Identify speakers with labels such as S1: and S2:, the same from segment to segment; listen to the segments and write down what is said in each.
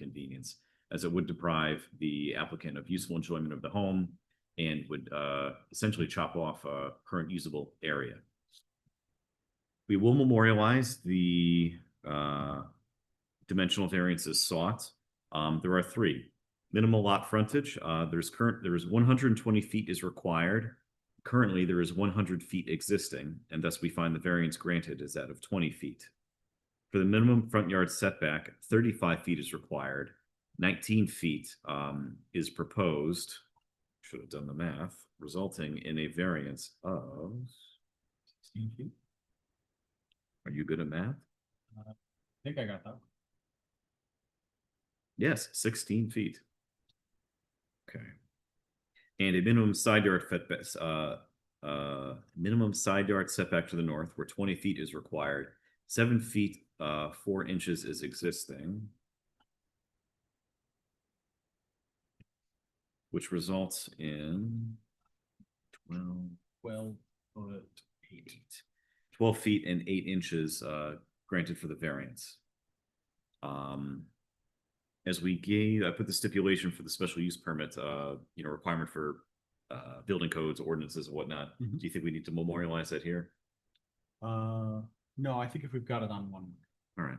S1: inconvenience, as it would deprive the applicant of useful enjoyment of the home and would uh, essentially chop off a current usable area. We will memorialize the uh, dimensional variances sought. Um, There are three. Minimal lot frontage, uh, there's current, there is one hundred and twenty feet is required. Currently, there is one hundred feet existing, and thus we find the variance granted is that of twenty feet. For the minimum front yard setback, thirty-five feet is required, nineteen feet um is proposed. Should have done the math, resulting in a variance of. Sixteen feet? Are you good at math?
S2: Uh, I think I got that. one.
S1: Yes, sixteen feet. Okay. And a minimum side yard setback, uh, uh, minimum side yard setback to the north where twenty feet is required. Seven feet, uh, four inches is existing. Which results in twelve,
S2: Twelve foot eight.
S1: twelve feet and eight inches, uh, granted for the variance. Um, as we gave, I put the stipulation for the special use permit, uh, you know, requirement for, uh, building codes, ordinances and whatnot. Do
S2: Mhm.
S1: you think we need to memorialize that here?
S2: Uh, no, I think if we've got it on one,
S1: All right.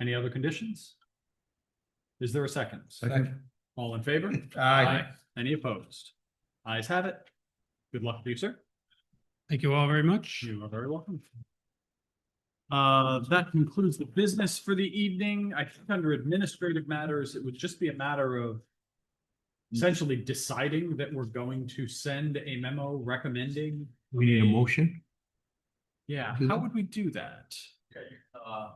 S2: any other conditions? Is there a second?
S3: Second.
S2: All in favor?
S3: Aye.
S2: Any opposed? Eyes have it. Good luck to you, sir.
S3: Thank you all very much.
S2: You are very welcome. Uh, that concludes the business for the evening. I think under administrative matters, it would just be a matter of essentially deciding that we're going to send a memo recommending.
S3: We need a motion?
S2: Yeah,
S3: Do
S2: how
S3: that?
S2: would we do that?
S4: Okay, uh.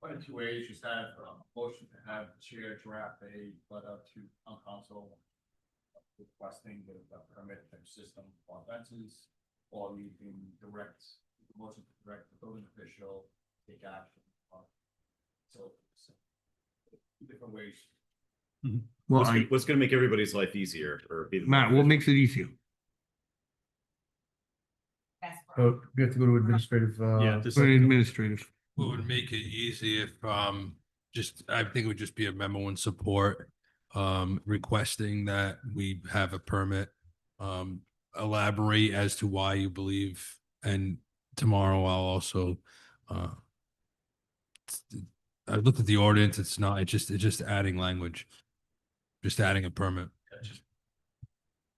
S4: Quite a few ways, just have a motion to have the chair draft a letter to town council. Requesting the the permit type system for fences, or you can direct, motion to direct the building official, to take action. on- So. so, Different ways.
S3: Well,
S1: What's,
S3: I,
S1: gonna- what's gonna make everybody's life easier or be? the-
S3: Matt, what makes it easier?
S5: So Oh, we have to go to administrative,
S2: Yeah,
S5: uh,
S2: this-
S3: For administrative.
S6: What would make it easy if, um, just, I think it would just be a memo in support, um, requesting that we have a permit. Um, elaborate as to why you believe, and tomorrow I'll also, uh, I looked at the ordinance, it's not, it's just, it's just adding language, just adding a permit.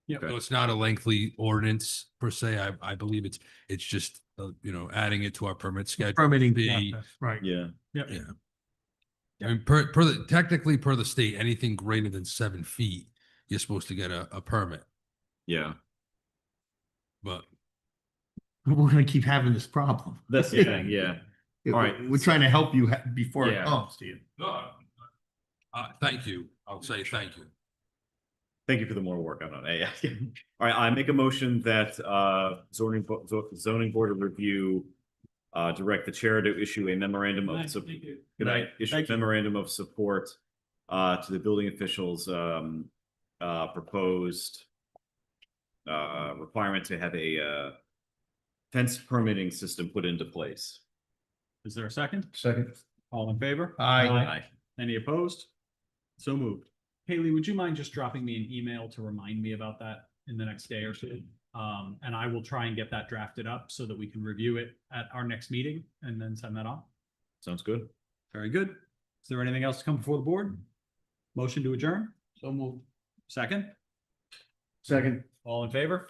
S2: Yeah.
S6: So it's not a lengthy ordinance per se, I, I believe it's, it's just, uh, you know, adding it to our permit schedule.
S3: Permitting
S6: Be-
S3: process, right.
S1: Yeah,
S6: Yeah. I mean, per, per the, technically per the state, anything greater than seven feet, you're supposed to get a, a permit,
S1: yeah,
S6: but
S3: We're gonna keep having this problem.
S1: that's the thing, yeah.
S3: All
S1: right.
S3: We're trying to help you ha- before
S1: Yeah.
S3: it comes to you.
S6: uh, thank you. I'll say thank you.
S1: Thank you for the more work on it. Yeah. All right, I make a motion that uh zoning bo- zo- zoning board of review uh direct the chair to issue a memorandum of
S2: Nice,
S1: sup-
S2: thank you.
S1: Good night. Issue
S2: Thank you.
S1: memorandum of support uh to the building officials um uh proposed uh requirement to have a uh fence permitting system put into place.
S2: Is there a second?
S5: second.
S2: All in favor?
S3: Aye.
S2: Any opposed? So moved. Haley, would you mind just dropping me an email to remind me about that in the next day or so? Um, and I will try and get that drafted up so that we can review it at our next meeting and then send that on.
S1: Sounds good.
S2: Very good. Is there anything else to come before the board? Motion to adjourn? So moved. Second?
S5: Second.
S2: All in favor?